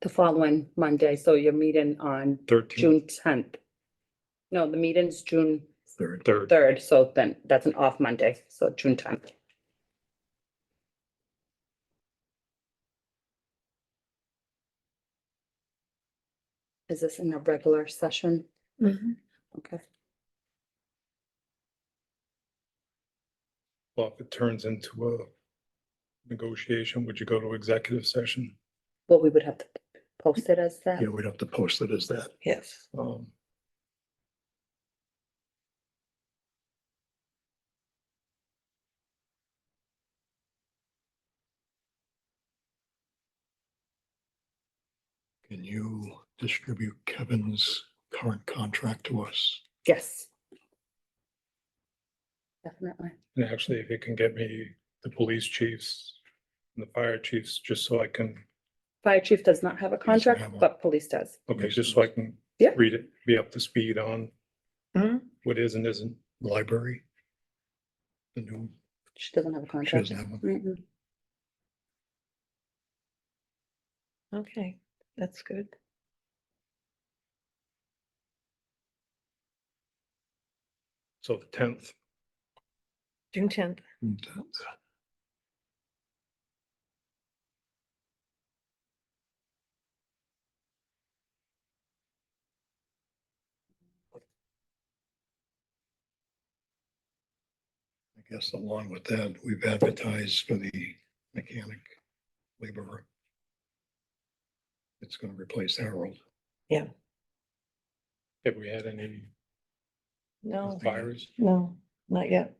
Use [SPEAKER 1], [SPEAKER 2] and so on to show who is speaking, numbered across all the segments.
[SPEAKER 1] the following Monday, so you're meeting on
[SPEAKER 2] Thirteenth,
[SPEAKER 1] June tenth. No, the meeting's June
[SPEAKER 3] Third.
[SPEAKER 2] third.
[SPEAKER 1] third, so then that's an off Monday, so June tenth. Is this in a regular session? Okay.
[SPEAKER 2] Well, if it turns into a negotiation, would you go to executive session?
[SPEAKER 1] Well, we would have to post it as that.
[SPEAKER 3] Yeah, we'd have to post it as that.
[SPEAKER 4] Yes.
[SPEAKER 2] Um,
[SPEAKER 3] Can you distribute Kevin's current contract to us?
[SPEAKER 1] Yes. Definitely.
[SPEAKER 2] and actually, if you can get me the police chiefs and the fire chiefs, just so I can,
[SPEAKER 1] Fire chief does not have a contract,
[SPEAKER 3] have one.
[SPEAKER 1] but police does.
[SPEAKER 2] okay, just so I can
[SPEAKER 1] Yeah.
[SPEAKER 2] read it, be up to speed on
[SPEAKER 4] Mhm.
[SPEAKER 2] what is and isn't.
[SPEAKER 3] Library? The new,
[SPEAKER 1] She doesn't have a
[SPEAKER 3] she
[SPEAKER 1] contract.
[SPEAKER 3] doesn't have one.
[SPEAKER 1] Mm-mm.
[SPEAKER 4] Okay, that's good.
[SPEAKER 2] So the tenth,
[SPEAKER 4] June tenth.
[SPEAKER 3] I guess along with that, we've advertised for the mechanic laborer. It's gonna replace Harold.
[SPEAKER 2] have we had any
[SPEAKER 4] No,
[SPEAKER 2] fires?
[SPEAKER 4] no, not yet.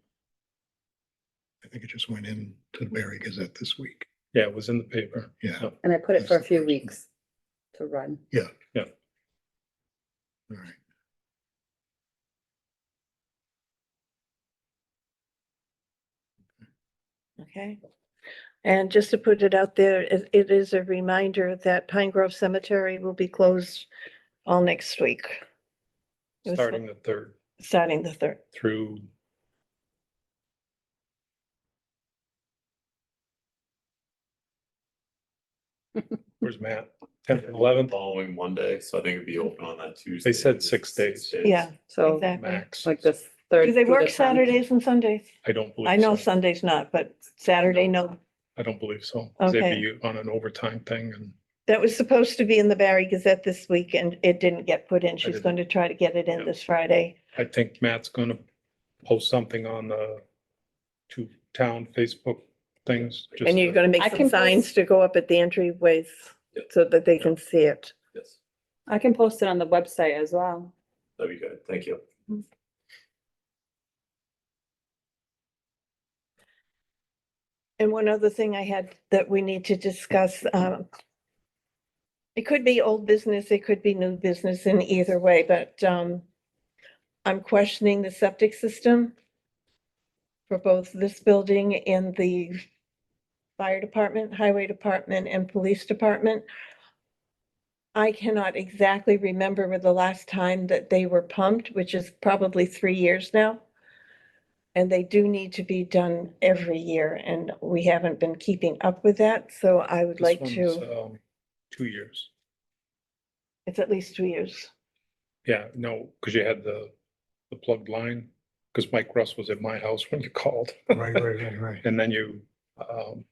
[SPEAKER 3] I think it just went in to the Barry Gazette this week.
[SPEAKER 2] Yeah, it was in the paper.
[SPEAKER 3] Yeah, all
[SPEAKER 1] And I put it for a
[SPEAKER 3] That's the
[SPEAKER 1] few
[SPEAKER 3] first one.
[SPEAKER 1] weeks to run.
[SPEAKER 3] right.
[SPEAKER 4] Okay. And just to put it out there, it, it is a reminder that Pine Grove Cemetery will be closed all next week, It was
[SPEAKER 2] Starting the third
[SPEAKER 4] starting the third.
[SPEAKER 2] through Where's Matt? Tenth and eleventh?
[SPEAKER 5] Following Monday, so I think it'd be open on that Tuesday.
[SPEAKER 2] said six days.
[SPEAKER 4] Yeah,
[SPEAKER 1] So
[SPEAKER 4] exactly.
[SPEAKER 2] Max.
[SPEAKER 1] like this third.
[SPEAKER 4] Do they
[SPEAKER 1] through the
[SPEAKER 4] work
[SPEAKER 1] 10th.
[SPEAKER 4] Saturdays and Sundays?
[SPEAKER 2] I don't believe.
[SPEAKER 4] I know
[SPEAKER 2] so.
[SPEAKER 4] Sunday's not, but Saturday, no.
[SPEAKER 2] I don't believe so. 'cause they'd
[SPEAKER 4] Okay.
[SPEAKER 2] be On an overtime thing and
[SPEAKER 4] That was supposed to be in the Barry Gazette this week and it didn't get put in. She's
[SPEAKER 2] didn't-
[SPEAKER 4] going to try to get it in
[SPEAKER 2] Yep.
[SPEAKER 4] this Friday.
[SPEAKER 2] I think Matt's gonna post something on the two town Facebook things. just
[SPEAKER 4] And you're gonna
[SPEAKER 1] I
[SPEAKER 4] make
[SPEAKER 1] can
[SPEAKER 4] some signs
[SPEAKER 1] post-
[SPEAKER 4] to go up at the entryways
[SPEAKER 5] Yep.
[SPEAKER 4] so that they can see it.
[SPEAKER 5] Yes,
[SPEAKER 1] I can post it on the website as well.
[SPEAKER 5] that'd be good. Thank you.
[SPEAKER 4] And one other thing I had that we need to discuss, um, it could be old business, it could be new business in either way, but, um, I'm questioning the septic system for both this building and the fire department, highway department, and police department. I cannot exactly remember the last time that they were pumped, which is probably three years now. And they do need to be done every year, and we haven't been keeping up with that, so I would
[SPEAKER 2] This
[SPEAKER 4] like
[SPEAKER 2] one's,
[SPEAKER 4] to,
[SPEAKER 2] um, Two years.
[SPEAKER 4] it's at least two years.
[SPEAKER 2] Yeah, no, because you had the, the plugged line, because Mike Russ was at my house when you called.
[SPEAKER 3] Right, right, right, right.
[SPEAKER 2] And then you, um,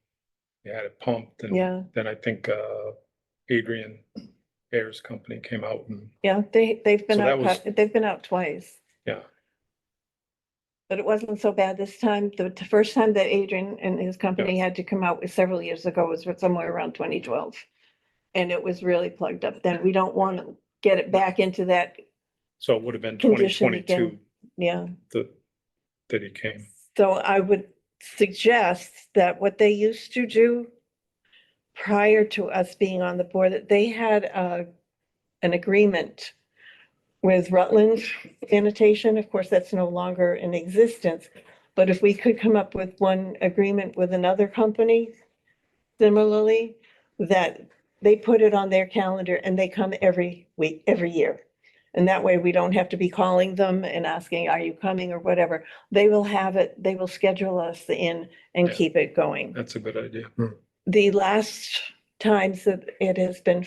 [SPEAKER 2] you had it pumped and.
[SPEAKER 4] Yeah,
[SPEAKER 2] Then I think, uh, Adrian Ayers Company came out and,
[SPEAKER 4] yeah, they, they've been
[SPEAKER 2] So that
[SPEAKER 4] out,
[SPEAKER 2] was-
[SPEAKER 4] cou- they've been out twice.
[SPEAKER 2] yeah,
[SPEAKER 4] But it wasn't so bad this time. The t- first time that Adrian and his company had to come out was several years ago, was with somewhere around twenty twelve. And it was really plugged up then. We don't want to get it back into that,
[SPEAKER 2] so it would have been twenty
[SPEAKER 4] Condition
[SPEAKER 2] twenty-two
[SPEAKER 4] again. yeah.
[SPEAKER 2] that, that he came.
[SPEAKER 4] So I would suggest that what they used to do prior to us being on the board, that they had a, an agreement with Rutland Sanitation. Of course, that's no longer in existence. But if we could come up with one agreement with another company similarly, that they put it on their calendar and they come every week, every year. And that way we don't have to be calling them and asking, are you coming or whatever they will have it, they will schedule us in and
[SPEAKER 2] Yeah.
[SPEAKER 4] keep it going.
[SPEAKER 3] Hmm.
[SPEAKER 2] That's a good idea.
[SPEAKER 4] The last times that it has been